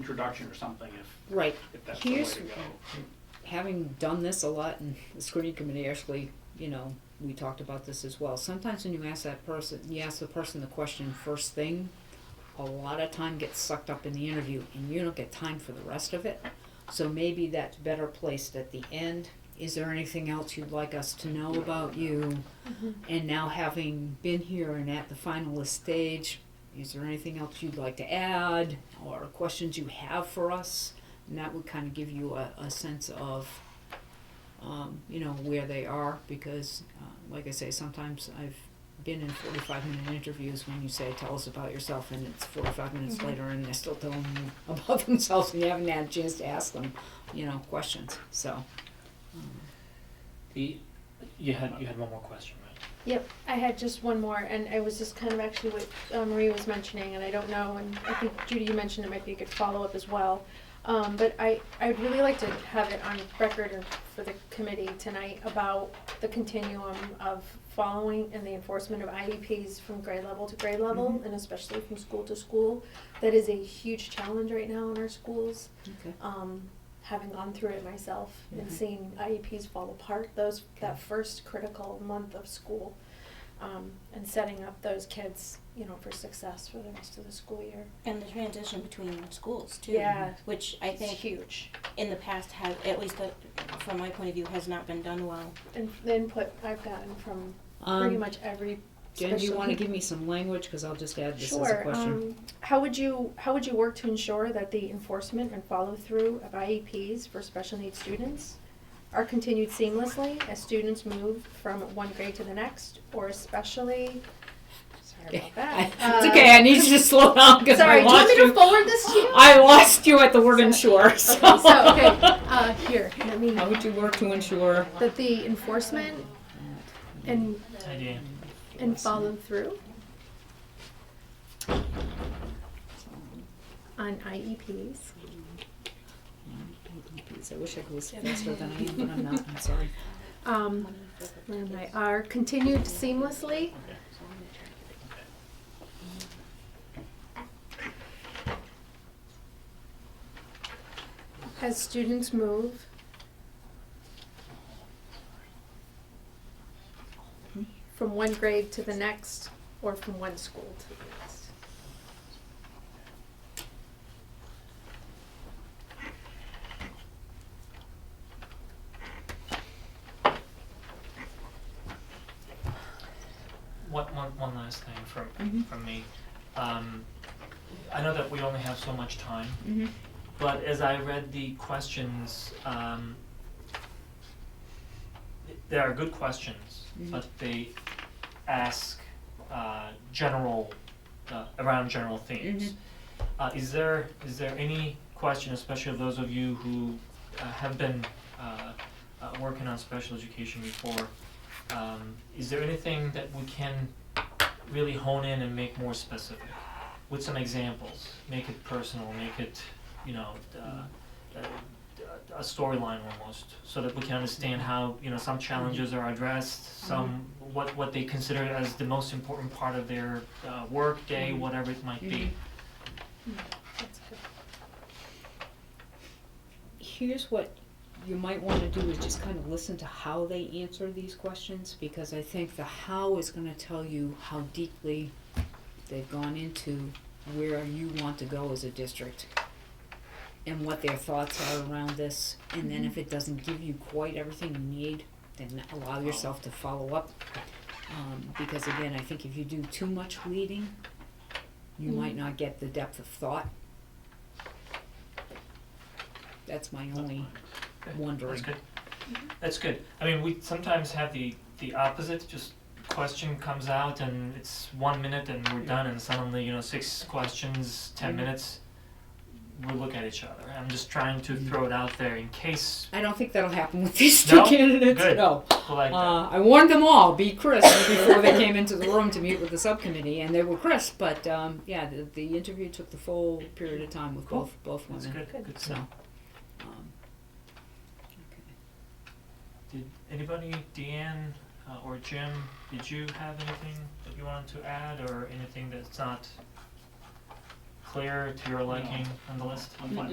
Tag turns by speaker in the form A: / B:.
A: introduction or something if,
B: Right.
A: if that's the way
B: Here's,
A: to go.
B: having done this a lot in the screening committee, actually, you know, we talked about this as well. Sometimes when you ask that person, you ask the person the question first thing, a lot of time gets sucked up in the interview and you don't get time for the rest of it. So maybe that's better placed at the end. Is there anything else you'd like us to know about you? And now having been here and at the finalist stage, is there anything else you'd like to add or questions you have for us? And that would kind of give you a, a sense of, um, you know, where they are because, uh, like I say, sometimes I've been in 45 minute interviews when you say, tell us about yourself, and it's 45 minutes
C: Mm-hmm.
B: later and they're still telling you about themselves and you haven't had a chance to ask them, you know, questions. So,
D: The, you had, you had one more question, right?
C: Yep, I had just one more, and it was just kind of actually what uh, Marie was mentioning, and I don't know, and I think Judy, you mentioned it might be a good follow-up as well. Um, but I, I'd really like to have it on record and for the committee tonight about the continuum of following and the enforcement of IEPs from grade level to grade level, and especially from school to school. That is a huge challenge right now in our schools
B: okay.
C: um, having gone through it myself and
B: Mhm.
C: seeing IEPs fall apart, those that
B: Okay.
C: first critical month of school, um, and setting up those kids, you know, for success for the rest of the school year.
E: And the transition between schools too.
C: Yeah.
E: Which I
C: It's
E: think
C: huge.
E: in the past has, at least uh, from my point of view, has not been done well.
C: And the input I've gotten from pretty
B: Um,
C: much every.
B: Jen, do you
C: special-
B: want to give me some language? Because I'll just add this as a
C: Sure.
B: question.
C: Um, how would you how would you work to ensure that the enforcement and follow through of IEPs for special needs students are continued seamlessly as students move from one grade to the next, or especially? Sorry
B: Okay.
C: about
B: I-
C: that.
B: it's
C: Uh,
B: okay. I need you to slow down because
C: Sorry,
B: I
C: do you want
B: lost
C: me
B: you.
C: to forward this to you?
B: I lost you at the word ensure. So. Oh.
C: Okay, so okay, uh, here let me
B: How would you work to ensure?
C: that the enforcement and
D: Idea.
C: and follow through on E IEPs
B: I wish I could was faster than I am, but I'm not. I'm sorry.
C: um, and they are continued seamlessly. As students move. From one grade to the next, or from one school to the next.
D: What, one, one last thing from,
B: Mhm.
D: from me. Um, I know that we only have so much time,
B: Mm-hmm.
D: but as I read the questions, um, th- they are good questions,
B: Mhm.
D: but they ask, uh, general, uh, around general themes. Uh, is there, is there any question, especially of those of you who, uh, have been, uh, uh, working on special education before, um, is there anything that we can really hone in and make more specific? With some examples, make it personal, make it, you know, uh, a, a storyline almost, so that we can understand how, you know, some challenges are addressed, some, what, what they consider as the most important part of their, uh, workday,
B: Mhm.
D: whatever it might be.
C: That's good.
B: Here's what you might want to do is just kind of listen to how they answer these questions because I think the how is going to tell you how deeply they've gone into where you want to go as a district and what their thoughts are around this. And then if it doesn't give you quite everything you need, then allow yourself to follow up. Um, because again, I think if you do too much leading, you might not get the depth of thought. That's my only
D: Okay,
B: wondering.
D: That's good. That's good. I mean, we sometimes have the, the opposite, just question comes out and it's one minute and we're done and suddenly, you know, six questions, ten
B: Mhm.
D: minutes. We look at each other. I'm just trying to throw it out there in case
B: I don't think that'll happen with these two
D: No?
B: candidates.
D: Good.
B: No.
D: we like that.
B: Uh, I warned them all, be crisp, before they came into the room to meet with the subcommittee, and they were crisp. But um, yeah, the, the interview took the full period of time with
D: Cool.
B: both both
D: That's
B: women.
D: good, good
B: So,
D: stuff.
B: um, okay.
D: Did anybody, Deanne uh, or Jim, did you have anything that you wanted to add or anything that's not clear to your liking on the list?
E: fine.